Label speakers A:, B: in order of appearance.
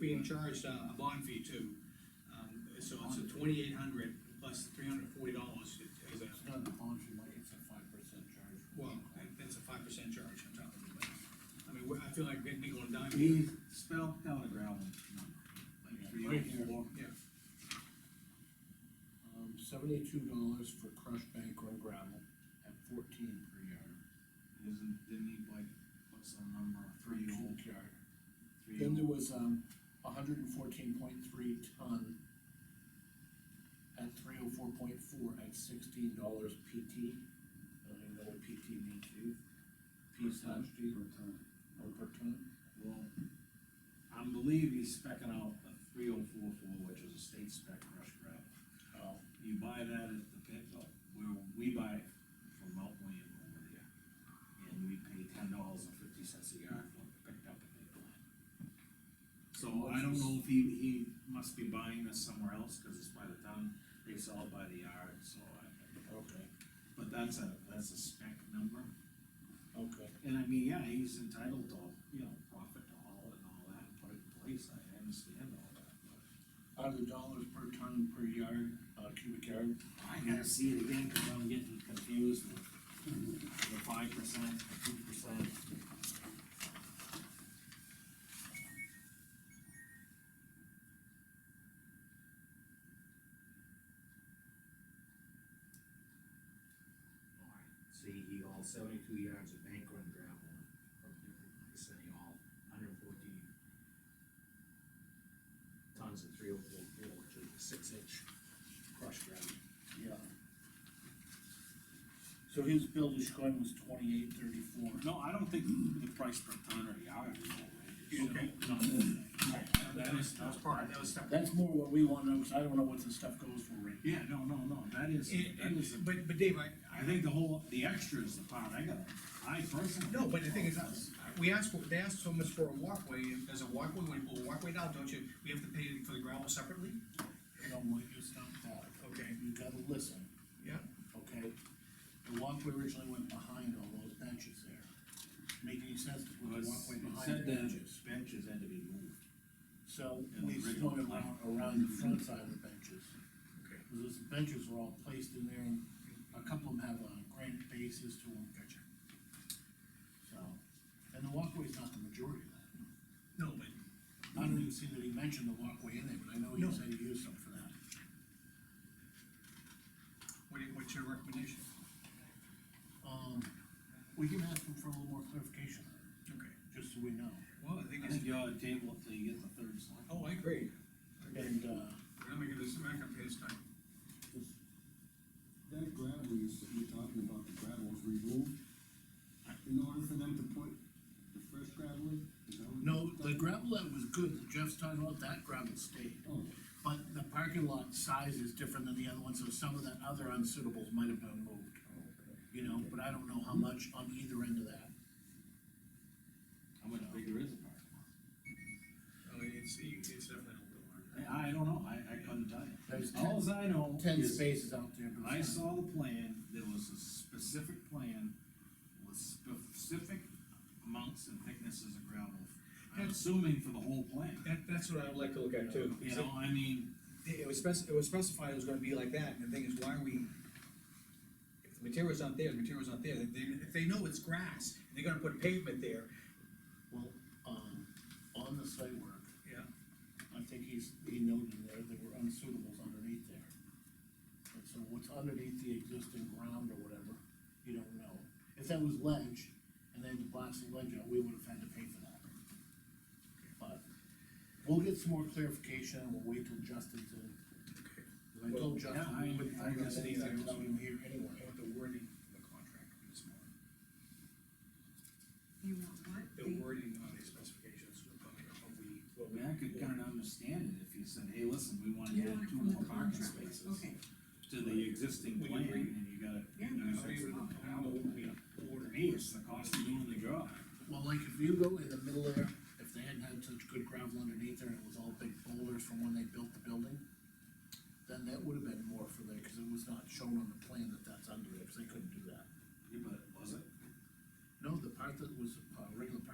A: being charged uh, a bond fee too. Um, So it's a twenty-eight hundred plus three hundred and forty dollars is a,
B: It's not a bond, you might, it's a five percent charge.
A: well, that's a five percent charge on top of it. but, I mean, we're- I feel like getting nickel and dime. here.
C: He spelled out a gravel number. like three or
B: Right here.
C: four.
A: Yeah,
B: Um, seventy-two dollars for crushed banker and gravel at fourteen per yard.
C: Isn't, didn't he like, what's the number, three
B: Cubic
C: old,
B: yard.
C: three
B: Then there
C: old?
B: was, um, hundred and fourteen point three ton at three oh four point four at sixteen dollars PT. I don't even know what PT means, do you? P slash G,
C: Per ton.
B: or per ton?
C: Well, I believe he's specking out a three oh four four, which is a state spec crushed gravel.
B: Oh.
C: You buy that at the pit, uh, where we buy it from Mount William over there. And we pay ten dollars and fifty cents a yard for it picked up at the plant. So I don't know if he, he must be buying this somewhere else, cause it's by the ton, they sell it by the yard, so I.
B: Okay,
C: But that's a, that's a spec number.
B: okay.
C: And I mean, yeah, he's entitled to, you know, profit to all and all that, put it in place, I understand all that, but.
B: Out of the dollars per ton per yard, uh, cubic yard,
C: I gotta see it again, cause I'm getting confused with the five percent, two percent. Alright, see, he hauled seventy-two yards of bank run gravel from different places, and he hauled hundred fourteen tons of three oh four four, which is a six-inch crushed gravel.
B: yeah. So his bill to Chicago was twenty-eight thirty-four.
C: No, I don't think the price per ton or yard is outrageous.
A: Okay.
C: No,
A: that was, that was part, that was step.
B: That's more what we wanna know, because I don't know what this stuff goes for, Rick.
C: Yeah, no, no, no, that is,
A: And-
C: that
A: and-
C: is,
A: But, but Dave, I,
C: I
A: I,
C: think the whole, the extra is the part I got, I personally.
A: no, but the thing is, uh, we asked, for- they asked so much for a walkway, and there's a walkway, when you pull a walkway down, don't you, we have to pay for the gravel separately?
B: You know, what you stop that.
A: Okay.
B: You gotta listen,
A: Yeah.
B: okay? The walkway originally went behind all those benches there. Make any sense to put
C: Was,
B: the walkway
C: it
B: behind
C: said
B: the
C: the
B: benches?
C: benches had to be moved.
B: So
C: in the
B: we
C: original
B: spun
C: plan.
B: around, around the front side of the benches.
A: Okay.
B: Because those benches were all placed in there, and a couple of them have, uh, granite bases to them. Gotcha. So, and the walkway's not the majority of that.
A: No, but
B: I don't even see that he mentioned the walkway in there, but I know he
A: No.
B: said he used some for that.
A: What, do- what's your recommendation?
B: Um, we can ask him for a little more clarification,
A: Okay.
B: just so we know.
A: Well, the thing
C: I
A: is,
C: think you ought to table it till you get the third slide.
A: oh, I agree.
B: And, uh,
A: We're not making this back up this time.
D: That gravel you s- you're talking about, the gravel was removed in order for them to put the fresh gravel in? Is that what-
B: no, the gravel that was good, that Jeff's talking about, that gravel stayed.
D: Oh,
B: But the parking lot size is different than the other one, so some of the other unsuitables might have been moved. You know, but I don't know how much on either end of that.
C: How much bigger is the parking lot?
A: I mean, it's, it's definitely a little hard.
C: I, I don't know, I, I couldn't tell you.
B: There's ten,
C: Alls I know
B: ten
C: is
B: spaces out there, but.
C: I
B: it's not-
C: saw the plan, there was a specific plan with specific amounts and thicknesses of gravel. I'm assuming for the whole plan,
A: That, that's what I would like to look at too.
C: you know, I mean,
A: It it was spec, it was specified it was gonna be like that, and the thing is, why are we? If the material's not there, the material's not there, If they, if they know it's grass, and they're gonna put pavement there.
B: Well, um, on the site work,
A: Yeah.
B: I think he's, he noted there, there were unsuitables underneath there. And so what's underneath the existing ground or whatever, you don't know. If that was ledge, and they had to blast the ledge out, we would have had to pay for that. But, we'll get some more clarification, and we'll wait till Justin's in.
A: Okay.
B: 'Cause I told Justin,
C: Yeah, I-
B: we wouldn't
C: I
B: find out
C: guess
B: anything
C: anything
B: without
C: was-
B: him here anyway.
A: want the wording of the contract to be small.
E: You want what?
A: The wording of the specifications, what we, what we- what we.
C: I could kinda understand it if you said, hey, listen, we wanna
E: You
C: add
E: want it
C: two
E: from
C: more
E: the
C: parking
E: contract,
C: spaces
E: okay,
C: to the existing
A: We
C: plan,
A: agree.
C: and you gotta.
E: Yeah,
C: you know,
A: How you would- how would we order
C: For
A: it?
C: me, it's the cost of doing the job.
B: Well, like if you go in the middle there, if they hadn't had such good gravel underneath there and it was all big boulders from when they built the building, then that would have been more for there, cause it was not shown on the plan that that's under there, cause they couldn't do that.
C: Yeah, but was it?
B: No, the part that was, uh, regular